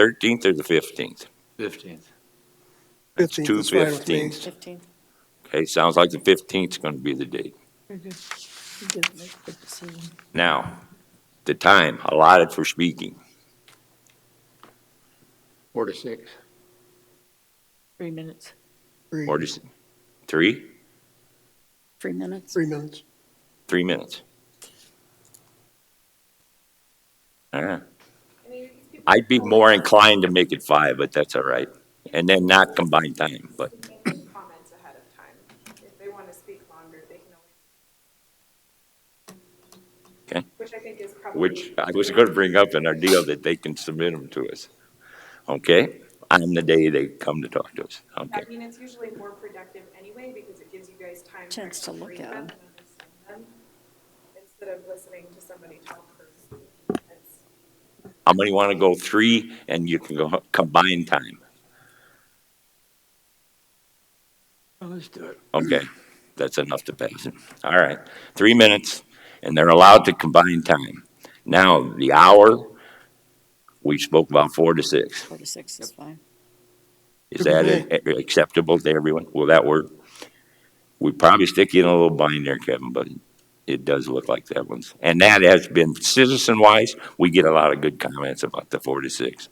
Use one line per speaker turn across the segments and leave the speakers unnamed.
13th or the 15th?
Fifteenth.
That's
15th
two
is fine with me.
15th.
15.
Okay, sounds like the 15th is going to be the date.
Very good. You did make a good decision.
Now, the time allotted for speaking,
Four to six.
Three minutes.
Three-
or just three,
Three minutes.
Three minutes.
three minutes? All right. I'd be more inclined to make it five, but that's all right. And then not combine time, but
comments ahead of time. If they want to speak longer, they can always.
Okay.
Which I think is probably.
which I was going to bring up in our deal that they can submit them to us. Okay? On the day they come to talk to us.
I
Okay.
mean, it's usually more productive anyway because it gives you guys time.
Chance to
actually
look
read
at
them
'em.
and understand them, Instead of listening to somebody talk for. it's-
How many want to go three and you can go combine time?
Let's do it.
Okay, that's enough to pass it. All right, three minutes, and they're allowed to combine time. Now, the hour, we spoke about four to six.
Four to six is fine.
Is that a- a- acceptable to everyone? Will that work? We probably stick you in a little bind there, Kevin, but it does look like that one's. And that has been citizen-wise, we get a lot of good comments about the four to six.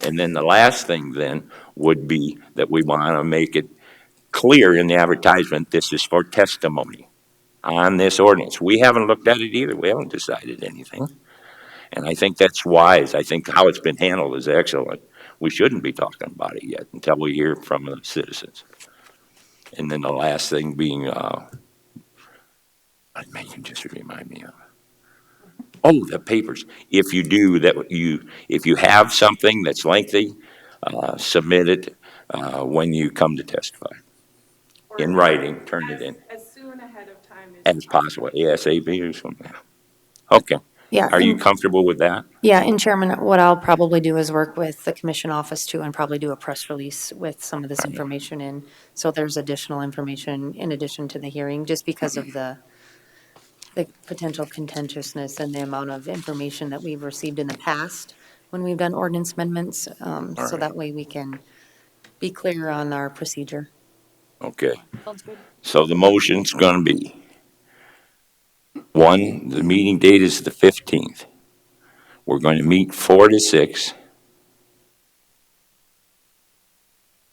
And then the last thing then would be that we want to make it clear in the advertisement, this is for testimony on this ordinance. We haven't looked at it either. We haven't decided anything. And I think that's wise. I think how it's been handled is excellent. We shouldn't be talking about it yet until we hear from the citizens. And then the last thing being, uh, I may can just remind me of. Oh, the papers. If you do that, you, if you have something that's lengthy, uh, submit it, uh, when you come to testify.
or
In writing, turn it
as-
in
As soon ahead of time.
as possible, ASAP or something. Okay.
Yeah.
Are you
and-
comfortable with that?
Yeah, and Chairman, what I'll probably do is work with the commission office too and probably do a press release with some of this information in. So there's additional information in addition to the hearing, just because of the, the potential contentiousness and the amount of information that we've received in the past when we've done ordinance amendments. Um, so
Alright.
that way we can be clear on our procedure.
Okay.
Sounds good.
So the motion's gonna be, one, the meeting date is the fifteenth. We're going to meet four to six.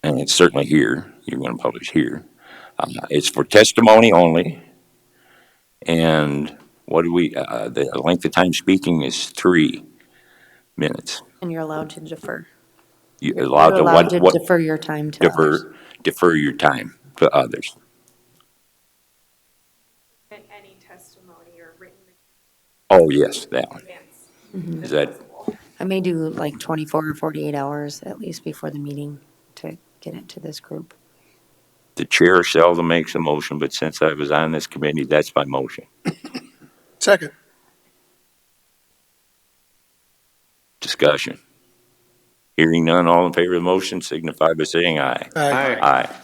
And it's certainly here, you're gonna publish here. Uh, it's for testimony only. And what do we, uh, the length of time speaking is three minutes.
And you're allowed to defer.
You're allowed
You're
to
allowed
what,
to
what?
defer your time to others.
Defer, defer your time to others.
And any testimony or written
Oh, yes, that one.
advance.
Is that,
I may do like 24 or 48 hours at least before the meeting to get it to this group.
the chair seldom makes a motion, but since I was on this committee, that's my motion.
Second.
Discussion. Hearing none, all in favor of the motion signify by saying aye.
Aye.
Aye.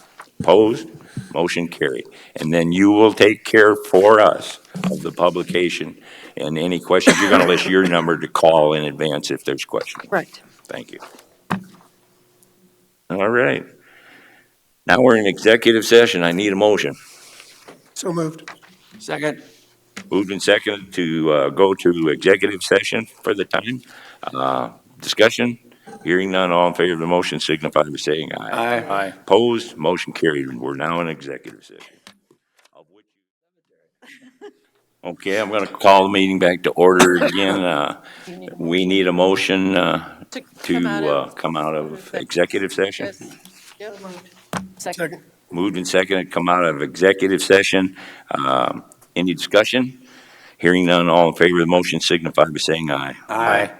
Opposed? Motion carried. And then you will take care for us of the publication and any questions. You're going to list your number to call in advance if there's questions.
Right.
Thank you. All right. Now we're in executive session. I need a motion.
So moved.
Second.
Moved and seconded to uh, go to executive session for the time. Uh, Discussion, hearing none, all in favor of the motion signify by saying aye.
Aye.
Opposed, motion carried. We're now in executive session. Of which you- Okay, I'm going to call the meeting back to order again. Uh, We need a motion uh,
To
to
come out
uh,
of.
come out of executive session.
Second.
Second.
Moved and seconded, come out of executive session. Um, Any discussion? Hearing none, all in favor of the motion signify by saying aye.
Aye.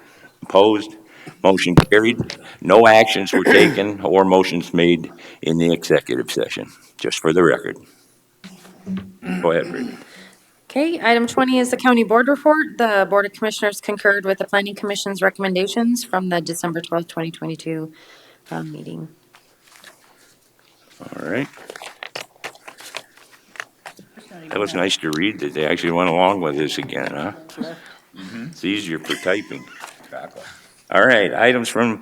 Opposed? Motion carried. No actions were taken or motions made in the executive session, just for the record. Go ahead, Brittany.
Okay, item 20 is the county board report. The Board of Commissioners concurred with the Planning Commission's recommendations from the December 12th, 2022 um, meeting.
All right. That was nice to read that they actually went along with this again, huh? It's easier for typing. All right, items from